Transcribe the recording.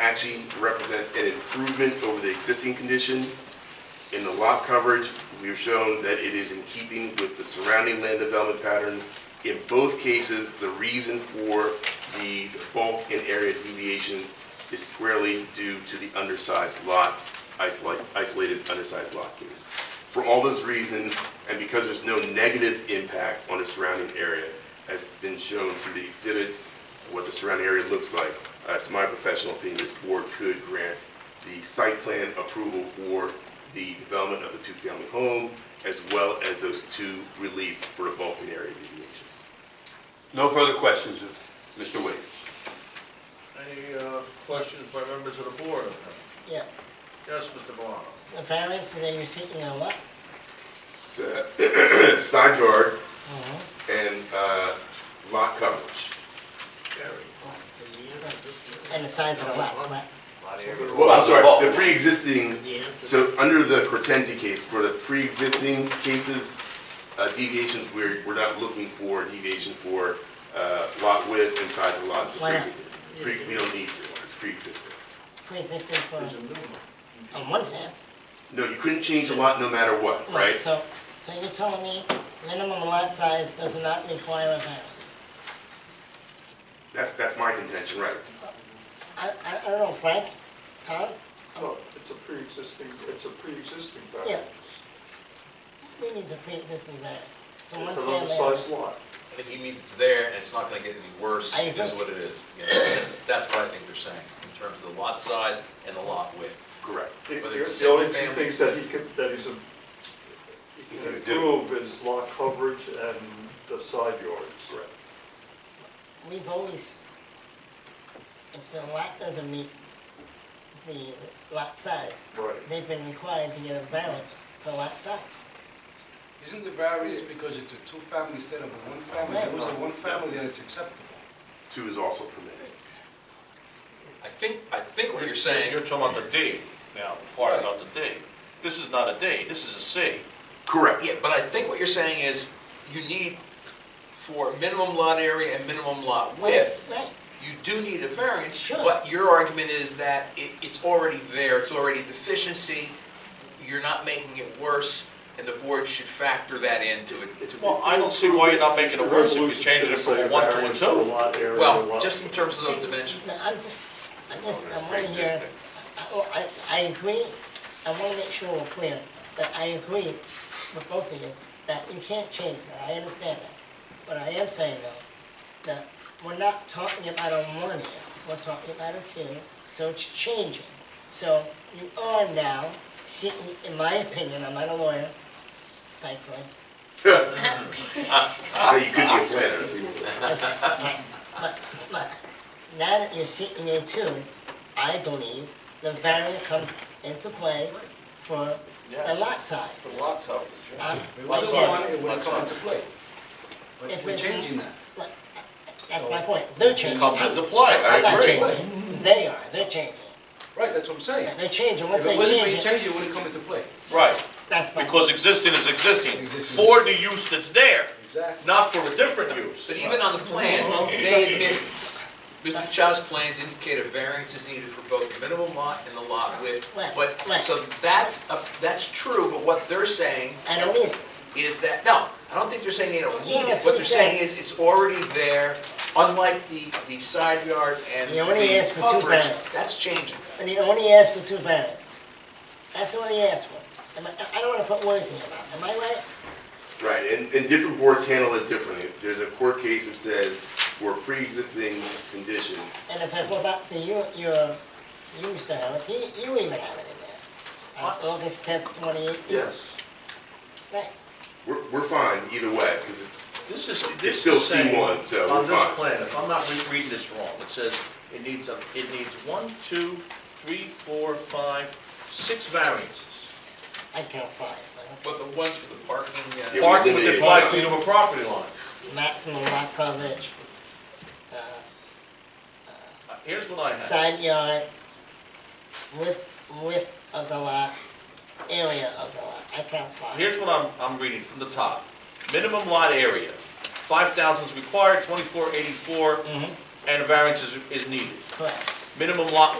actually represents an improvement over the existing condition. In the lot coverage, we have shown that it is in keeping with the surrounding land development pattern. In both cases, the reason for these bulk and area deviations is squarely due to the undersized lot, isolate- isolated undersized lot case. For all those reasons, and because there's no negative impact on the surrounding area, has been shown through the exhibits, what the surrounding area looks like, uh, it's my professional opinion, this board could grant the site plan approval for the development of the two-family home, as well as those two release for the bulk and area deviations. No further questions of Mr. Williams. Any uh, questions by members of the board? Yeah, Yes, Mr. Valano? the variance that you're seeking are what? S- Side yard Uh-huh. and uh, lot coverage. And the size of the lot, correct? Well, I'm Lot bulk. sorry, the pre-existing, Yeah. so under the Cortensi case, for the pre-existing cases, uh, deviations, we're, we're not looking for deviation for uh, lot width and size of lot. It's Why not? pre-existing. Pre- We don't need to, it's pre-existing. Pre-existing for, There's a new one. on one fam. No, you couldn't change the lot no matter what, right? So, so you're telling me minimum lot size does not require a variance? That's, that's my contention, right? I, I, I don't know, Frank, Tom, Well, Oh, it's a pre-existing, it's a pre-existing Yeah. variance. we need a pre-existing variance. It's a one It's an family. undersized lot. I think he means it's there, and it's not gonna get any worse, I is agree. what it is. You know, That's what I think they're saying, in terms of the lot size and the lot width. Correct. The But it's the only two single-family. things that he could, that he's, a- he can He can do. improve is lot coverage and the side yards. Correct. We've always, if the lot doesn't meet the lot size, Right. they've been required to get a variance for lot size. Isn't the variance because it's a two-family instead of a one-family? If it was a one-family, then it's acceptable. Two is also permitted. I think, I think what you're saying, You're talking about the D now, the part about the D. This is not a D, this is a C. Correct. yeah, but I think what you're saying is, you need for minimum lot area and minimum lot width, Right, you do need a variance, Sure. but your argument is that it, it's already there, it's already deficiency, you're not making it worse, and the board should factor that into it, to Well, I don't see why you're not making it worse if you Resolution change it should from say a one to a variance for two. lot area and Well, lot- just in terms of those dimensions. Oh, No, I'm just, I'm just, I want to hear, pre-existing. I- oh, I, I agree, I want to make sure we're clear, that I agree with both of you, that you can't change that, I understand that. But I am saying though, that we're not talking about a one here, we're talking about a two, so it's changing. So you are now seeking, in my opinion, I'm not a lawyer, thankfully, No, you could be a planner. too. But, but now that you're seeking a two, I believe the variant comes into play for the lot size. The lot size. Um, Lot size, again, it wouldn't come into play. If But we're it's- changing that. That's my point, they're changing. Comes into play, I I'm not agree. changing, they are, they're changing. Right, that's what I'm saying. Yeah, They're changing, once If they it wasn't being change it, changed, it wouldn't come into play. Right, that's my. because existing is existing, for the use that's there, Exactly. not for a different use. But even on the plans, they admit, Mr. Chow's plans indicate a variance is needed for both the minimum lot and the lot width. Right, But, right. so that's, a- that's true, but what they're saying I don't need it, is that, no, I don't think they're saying they don't Yeah, need it. that's What what they're he saying said. is it's already there, unlike the, the side yard and He the only asked for two coverage, variances. that's changing. and he only asked for two variants. That's all he asked for. Am I, I don't wanna put words in your mouth, am I right? Right, and, and different boards handle it differently. There's a court case that says for pre-existing conditions, And if I go back to your, your, you, Mr. Harris, you, you even have it in there. Uh, August tenth, twenty eighteen. Yes. Right, we're, we're fine either way, because it's, This is, it's this still is saying, C1, so we're on this fine. plan, if I'm not re- reading this wrong, it says it needs, a- it needs one, two, three, four, five, six variances. I count five, but But the ones for the parking, uh, Yeah, we Parking believe within it's five not. feet of a property line. okay. maximum lot coverage, uh, Uh, Here's what I have. side yard, width, width of the lot, area of the lot, I count five. Here's what I'm, I'm reading from the top. Minimum lot area, five thousand is required, twenty-four eighty-four, Mhm. and a variance is, is needed. Correct. Minimum lot